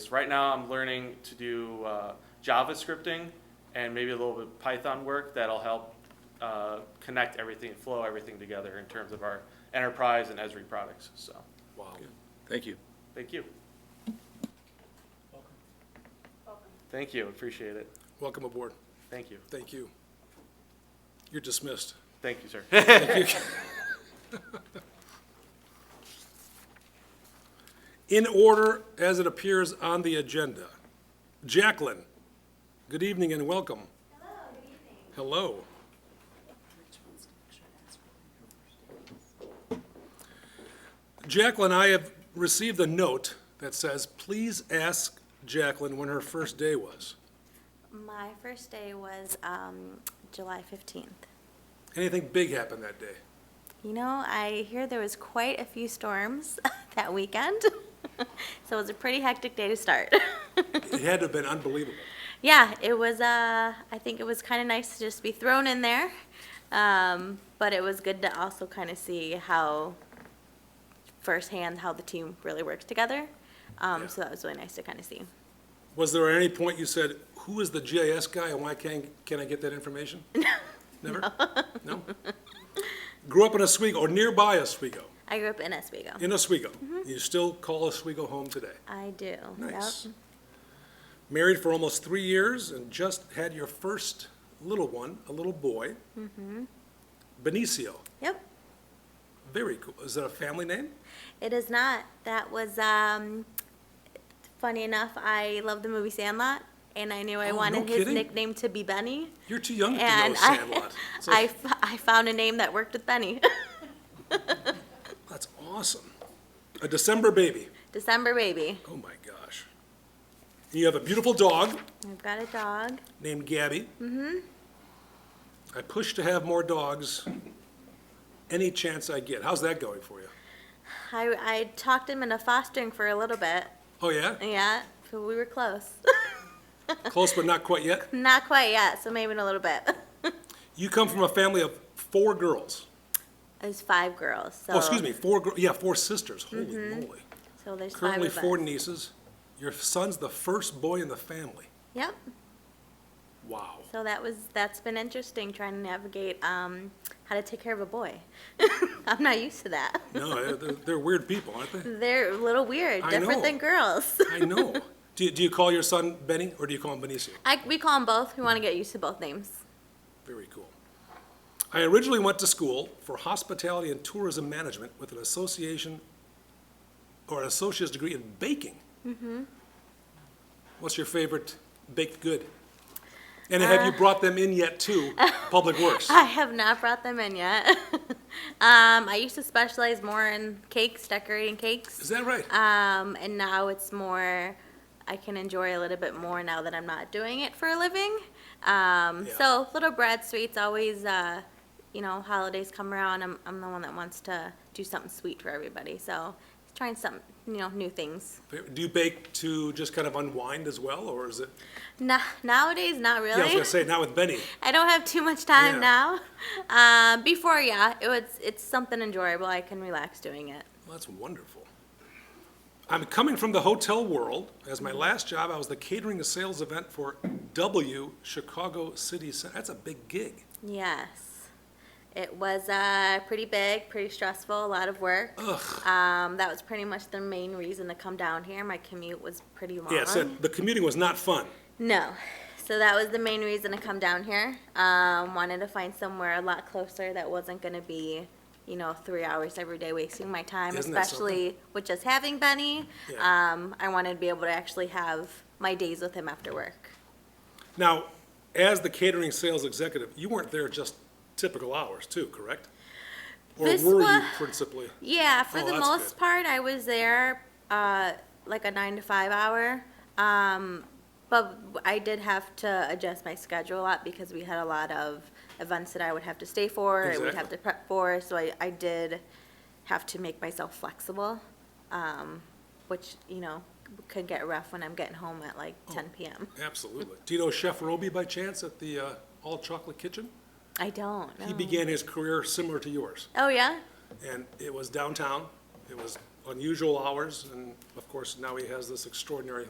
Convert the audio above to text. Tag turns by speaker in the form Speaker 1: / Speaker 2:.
Speaker 1: things. Right now, I'm learning to do uh, JavaScripting and maybe a little bit of Python work that'll help uh, connect everything, flow everything together in terms of our enterprise and Esri products. So,
Speaker 2: Wow.
Speaker 3: Thank you.
Speaker 1: thank you. Thank you. Appreciate it.
Speaker 2: Welcome aboard.
Speaker 1: Thank you.
Speaker 2: Thank you. You're dismissed.
Speaker 1: Thank you, sir.
Speaker 2: In order as it appears on the agenda. Jacqueline, good evening and welcome. Hello, good evening. Hello. Jacqueline, I have received a note that says, please ask Jacqueline when her first day was.
Speaker 4: My first day was um, July 15th.
Speaker 2: Anything big happened that day?
Speaker 4: You know, I hear there was quite a few storms that weekend, so it was a pretty hectic day to start.
Speaker 2: It had to have been unbelievable.
Speaker 4: yeah, it was. Uh, I think it was kind of nice to just be thrown in there, um, but it was good to also kind of see how firsthand how the team really works together. Um,
Speaker 2: Yeah.
Speaker 4: So that was really nice to kind of see.
Speaker 2: Was there at any point you said, who is the GIS guy and why can't, can I get that information? Never? No? Grew up in Oswego, or nearby Oswego,
Speaker 4: I grew up in Oswego.
Speaker 2: in Oswego.
Speaker 4: Mm-hmm.
Speaker 2: You still call Oswego home today.
Speaker 4: I do. Yep.
Speaker 2: Nice. Married for almost three years and just had your first little one, a little boy.
Speaker 4: Mm-hmm.
Speaker 2: Benicio,
Speaker 4: yep.
Speaker 2: very cool. Is that a family name?
Speaker 4: It is not. That was um, funny enough. I love the movie Sandlot, and I knew I
Speaker 2: Oh,
Speaker 4: wanted
Speaker 2: no
Speaker 4: his
Speaker 2: kidding?
Speaker 4: nickname to be Benny.
Speaker 2: You're too young to know
Speaker 4: And I,
Speaker 2: Sandlot. It's
Speaker 4: I,
Speaker 2: like-
Speaker 4: f- I found a name that worked with Benny.
Speaker 2: That's awesome. A December baby.
Speaker 4: December baby.
Speaker 2: Oh, my gosh. You have a beautiful dog.
Speaker 4: I've got a dog.
Speaker 2: named Gabby. Mm-hmm. I push to have more dogs any chance I get. How's that going for you?
Speaker 4: I, I talked him into fostering for a little bit.
Speaker 2: Oh, yeah?
Speaker 4: Yeah, so we were close.
Speaker 2: Close, but not quite yet.
Speaker 4: not quite yet, so maybe in a little bit.
Speaker 2: You come from a family of four girls.
Speaker 4: There's five girls. So,
Speaker 2: Oh, Mm-hmm. excuse me, four, gir- yeah, four sisters. Holy moly.
Speaker 4: So there's
Speaker 2: Currently
Speaker 4: five of
Speaker 2: four
Speaker 4: us.
Speaker 2: nieces. Your son's the first boy in the family.
Speaker 4: Yep.
Speaker 2: Wow.
Speaker 4: So that was that's been interesting trying to navigate um, how to take care of a boy. I'm not used to that.
Speaker 2: No, they're, they're weird people, aren't they?
Speaker 4: They're a little weird,
Speaker 2: I
Speaker 4: different
Speaker 2: know.
Speaker 4: than girls.
Speaker 2: I know. Do you, do you call your son Benny or do you call him Benicio?
Speaker 4: I, we call them both. We want to get used to both names.
Speaker 2: Very cool. I originally went to school for hospitality and tourism management with an association or an associate's degree in baking.
Speaker 4: Mm-hmm.
Speaker 2: What's your favorite baked good? And have you brought them in yet to Public Works?
Speaker 4: Uh, I have not brought them in yet. um, I used to specialize more in cakes, decorating
Speaker 2: Is
Speaker 4: cakes,
Speaker 2: that right?
Speaker 4: um, and now it's more. I can enjoy a little bit more now that I'm not doing it for a living. Um,
Speaker 2: Yeah.
Speaker 4: So little bread sweets always, uh, you know, holidays come around. I'm, I'm the one that wants to do something sweet for everybody. So trying some, you know, new things.
Speaker 2: Do you bake to just kind of unwind as well, or is it?
Speaker 4: Na nowadays, not
Speaker 2: Yeah, I was
Speaker 4: really.
Speaker 2: gonna say, not with Benny.
Speaker 4: I don't have too much time
Speaker 2: Yeah.
Speaker 4: now. Um, before, yeah, it was it's something enjoyable. I can relax doing it.
Speaker 2: Well, that's wonderful. I'm coming from the hotel world. As my last job, I was the catering and sales event for W Chicago City Center. That's a big gig.
Speaker 4: Yes, it was uh, pretty big, pretty stressful, a lot of work. Um, that was pretty much the main reason to come down here. My commute was pretty long.
Speaker 2: Yeah, so the commuting was not fun.
Speaker 4: No. So that was the main reason to come down here. Um, wanted to find somewhere a lot closer that wasn't going to be, you know, three hours every day wasting my time,
Speaker 2: Isn't that
Speaker 4: especially with just having Benny.
Speaker 2: Yeah.
Speaker 4: Um, I wanted to be able to actually have my days with him after work.
Speaker 2: Now, as the catering sales executive, you weren't there just typical hours too, correct? Or
Speaker 4: This
Speaker 2: were you
Speaker 4: wa-
Speaker 2: principally?
Speaker 4: Yeah, for
Speaker 2: Oh,
Speaker 4: the
Speaker 2: that's
Speaker 4: most
Speaker 2: good.
Speaker 4: part, I was there uh, like a nine to five hour. Um, but I did have to adjust my schedule a lot because we had a lot of events that I would have to stay for and we'd have
Speaker 2: Exactly.
Speaker 4: to prep for. So I, I did have to make myself flexible, um, which, you know, could get rough when I'm getting home at like
Speaker 2: Oh.
Speaker 4: 10 p.m.
Speaker 2: Absolutely. Do you know Chef Roby by chance at the uh, All Chocolate Kitchen?
Speaker 4: I don't.
Speaker 2: He
Speaker 4: know.
Speaker 2: began his career similar to yours.
Speaker 4: Oh, yeah?
Speaker 2: And it was downtown, it was unusual hours, and of course, now he has this extraordinary